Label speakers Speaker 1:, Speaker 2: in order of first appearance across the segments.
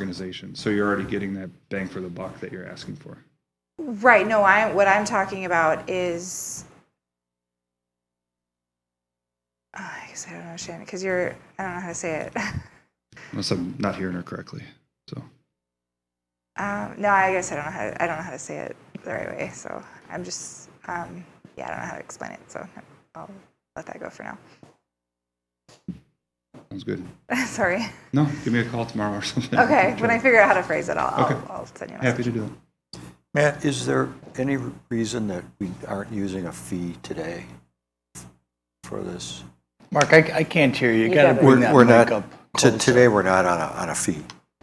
Speaker 1: organization. So you're already getting that bang for the buck that you're asking for.
Speaker 2: Right. No, I what I'm talking about is Ah, I guess I don't understand because you're I don't know how to say it.
Speaker 1: Unless I'm not hearing her correctly. So
Speaker 2: Um, no, I guess I don't know how to, I don't know how to say it the right way. So I'm just um, yeah, I don't know how to explain it. So I'll let that go for now.
Speaker 1: sounds good.
Speaker 2: Sorry.
Speaker 1: No, give me a call tomorrow or something.
Speaker 2: Okay. When I
Speaker 1: Sure.
Speaker 2: figure out how to phrase it, I'll
Speaker 1: Okay.
Speaker 2: I'll, I'll send you. A
Speaker 1: happy
Speaker 2: message.
Speaker 1: to do that.
Speaker 3: Matt, is there any reason that we aren't using a fee today for this?
Speaker 4: Mark, I, I can't hear you. You
Speaker 5: You
Speaker 4: gotta
Speaker 5: gotta-
Speaker 3: We're
Speaker 4: bring that
Speaker 3: we're
Speaker 4: mic
Speaker 3: not,
Speaker 4: up.
Speaker 3: to-
Speaker 4: closer.
Speaker 3: today, we're not on a, on a fee.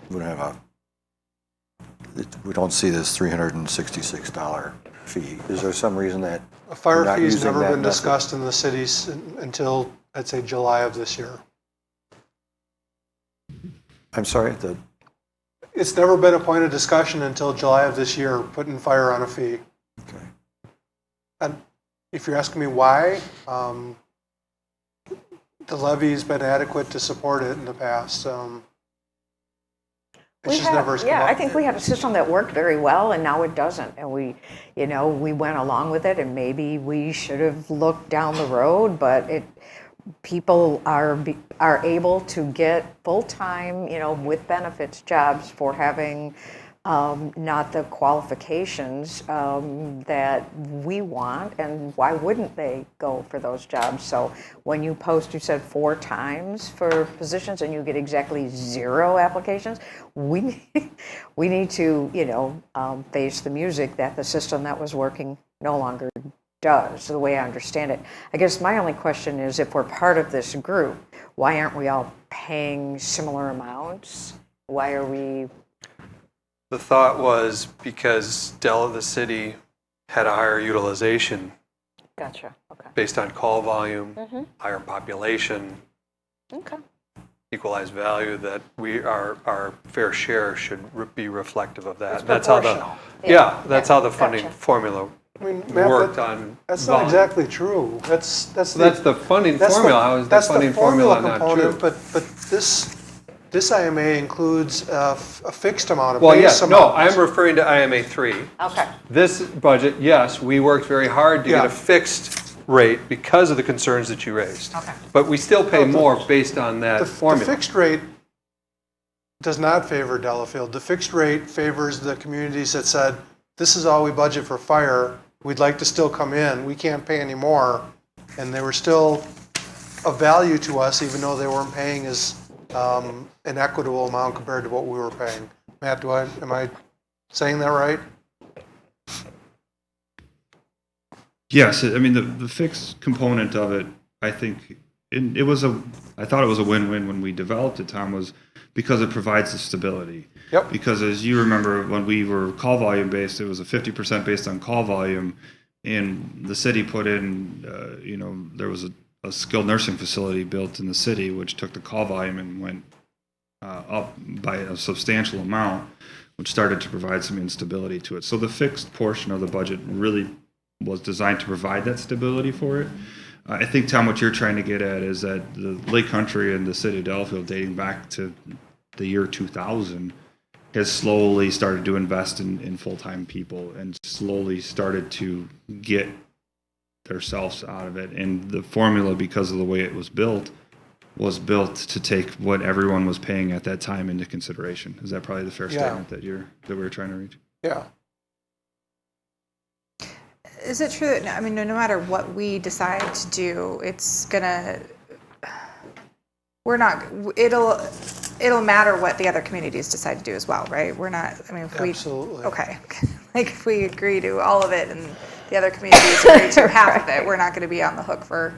Speaker 3: We don't have a, it- we don't see this $366 fee. Is there some reason that?
Speaker 6: A fire
Speaker 3: not
Speaker 6: fee has
Speaker 3: using
Speaker 6: never
Speaker 3: that
Speaker 6: been
Speaker 3: method.
Speaker 6: discussed in the cities until, I'd say, July of this year.
Speaker 3: I'm sorry, the,
Speaker 6: It's never been a point of discussion until July of this year, putting fire on a fee.
Speaker 3: okay.
Speaker 6: And if you're asking me why, um, the levy's been adequate to support it in the past. Um,
Speaker 5: We
Speaker 6: It's just
Speaker 5: had-
Speaker 6: never. come
Speaker 5: Yeah,
Speaker 6: up.
Speaker 5: I think we had a system that worked very well, and now it doesn't. And we, you know, we went along with it, and maybe we should have looked down the road, but it, people are, be- are able to get full-time, you know, with benefits jobs for having um, not the qualifications um, that we want, and why wouldn't they go for those jobs? So when you post, you said four times for positions, and you get exactly zero applications. We we need to, you know, um, face the music that the system that was working no longer does, the way I understand it. I guess my only question is, if we're part of this group, why aren't we all paying similar amounts? Why are we
Speaker 7: The thought was because Dell of the city had a higher utilization
Speaker 5: Gotcha. Okay.
Speaker 7: based on call volume,
Speaker 5: Mm-hmm.
Speaker 7: higher population,
Speaker 5: Okay.
Speaker 7: equalized value, that we, our, our fair share should re- be reflective of that. That's how the Yeah, that's how the funding
Speaker 5: Gotcha.
Speaker 7: formula
Speaker 6: I mean, Matt,
Speaker 7: worked
Speaker 6: that-
Speaker 7: on.
Speaker 6: That's not
Speaker 7: volume.
Speaker 6: exactly true. That's, that's.
Speaker 7: So that's the funding
Speaker 6: That's the-
Speaker 7: formula. How is the
Speaker 6: that's
Speaker 7: funding formula not
Speaker 6: component,
Speaker 7: true?
Speaker 6: But, but this, this IMA includes a, f- a fixed amount of
Speaker 7: Well,
Speaker 6: base
Speaker 7: yes,
Speaker 6: amount.
Speaker 7: no, I'm referring to IMA three.
Speaker 5: Okay.
Speaker 7: This budget, yes, we worked very hard to get
Speaker 6: Yeah.
Speaker 7: a fixed rate because of the concerns that you raised.
Speaker 5: Okay.
Speaker 7: But we still
Speaker 6: No,
Speaker 7: pay
Speaker 6: the-
Speaker 7: more based on that
Speaker 6: The- The
Speaker 7: formula.
Speaker 6: fixed rate does not favor Delafield. The fixed rate favors the communities that said, this is all we budget for fire, we'd like to still come in, we can't pay anymore. And they were still of value to us, even though they weren't paying as um, an equitable amount compared to what we were paying. Matt, do I, am I saying that right?
Speaker 1: Yes, I mean the the fixed component of it, I think it, it was a I thought it was a win-win when we developed it, Tom, was because it provides the stability.
Speaker 6: Yep.
Speaker 1: Because as you remember, when we were call volume based, it was a 50% based on call volume, and the city put in, uh, you know, there was a, a skilled nursing facility built in the city, which took the call volume and went uh, up by a substantial amount, which started to provide some instability to it. So the fixed portion of the budget really was designed to provide that stability for it. Uh, I think, Tom, what you're trying to get at is that the Lake Country and the city of Delafield, dating back to the year 2000, has slowly started to invest in, in full time people and slowly started to get themselves out of it. And the formula, because of the way it was built, was built to take what everyone was paying at that time into consideration. Is that probably the fair
Speaker 6: Yeah.
Speaker 1: statement that you're that we were trying to reach?
Speaker 6: Yeah.
Speaker 2: Is it true that no, I mean, no, no matter what we decide to do, it's gonna we're not it'll it'll matter what the other communities decide to do as well, right? We're not. I mean, if we
Speaker 6: Absolutely.
Speaker 2: okay, like if we agree to all of it and the other communities agree to half of it, we're not going to be on the hook for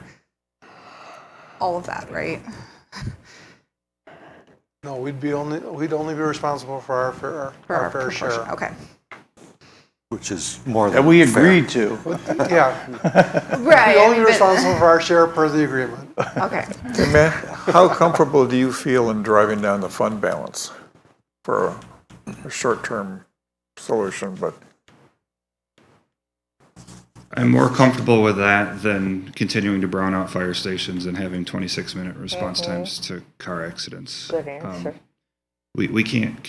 Speaker 2: all of that, right?
Speaker 6: No, we'd be only, we'd only be responsible for our fair,
Speaker 2: For
Speaker 6: our fair share.
Speaker 2: proportion. Okay,
Speaker 3: Which is more than
Speaker 4: That we
Speaker 3: fair.
Speaker 4: agreed to.
Speaker 6: Yeah,
Speaker 2: right.
Speaker 6: we're only responsible for our share per the agreement.
Speaker 2: Okay.
Speaker 8: Hey, Matt, how comfortable do you feel in driving down the fund balance for a- a short-term solution, but
Speaker 1: I'm more comfortable with that than continuing to brown out fire stations and having 26 minute response times to car accidents. Um,
Speaker 5: Good answer.
Speaker 1: We, we can't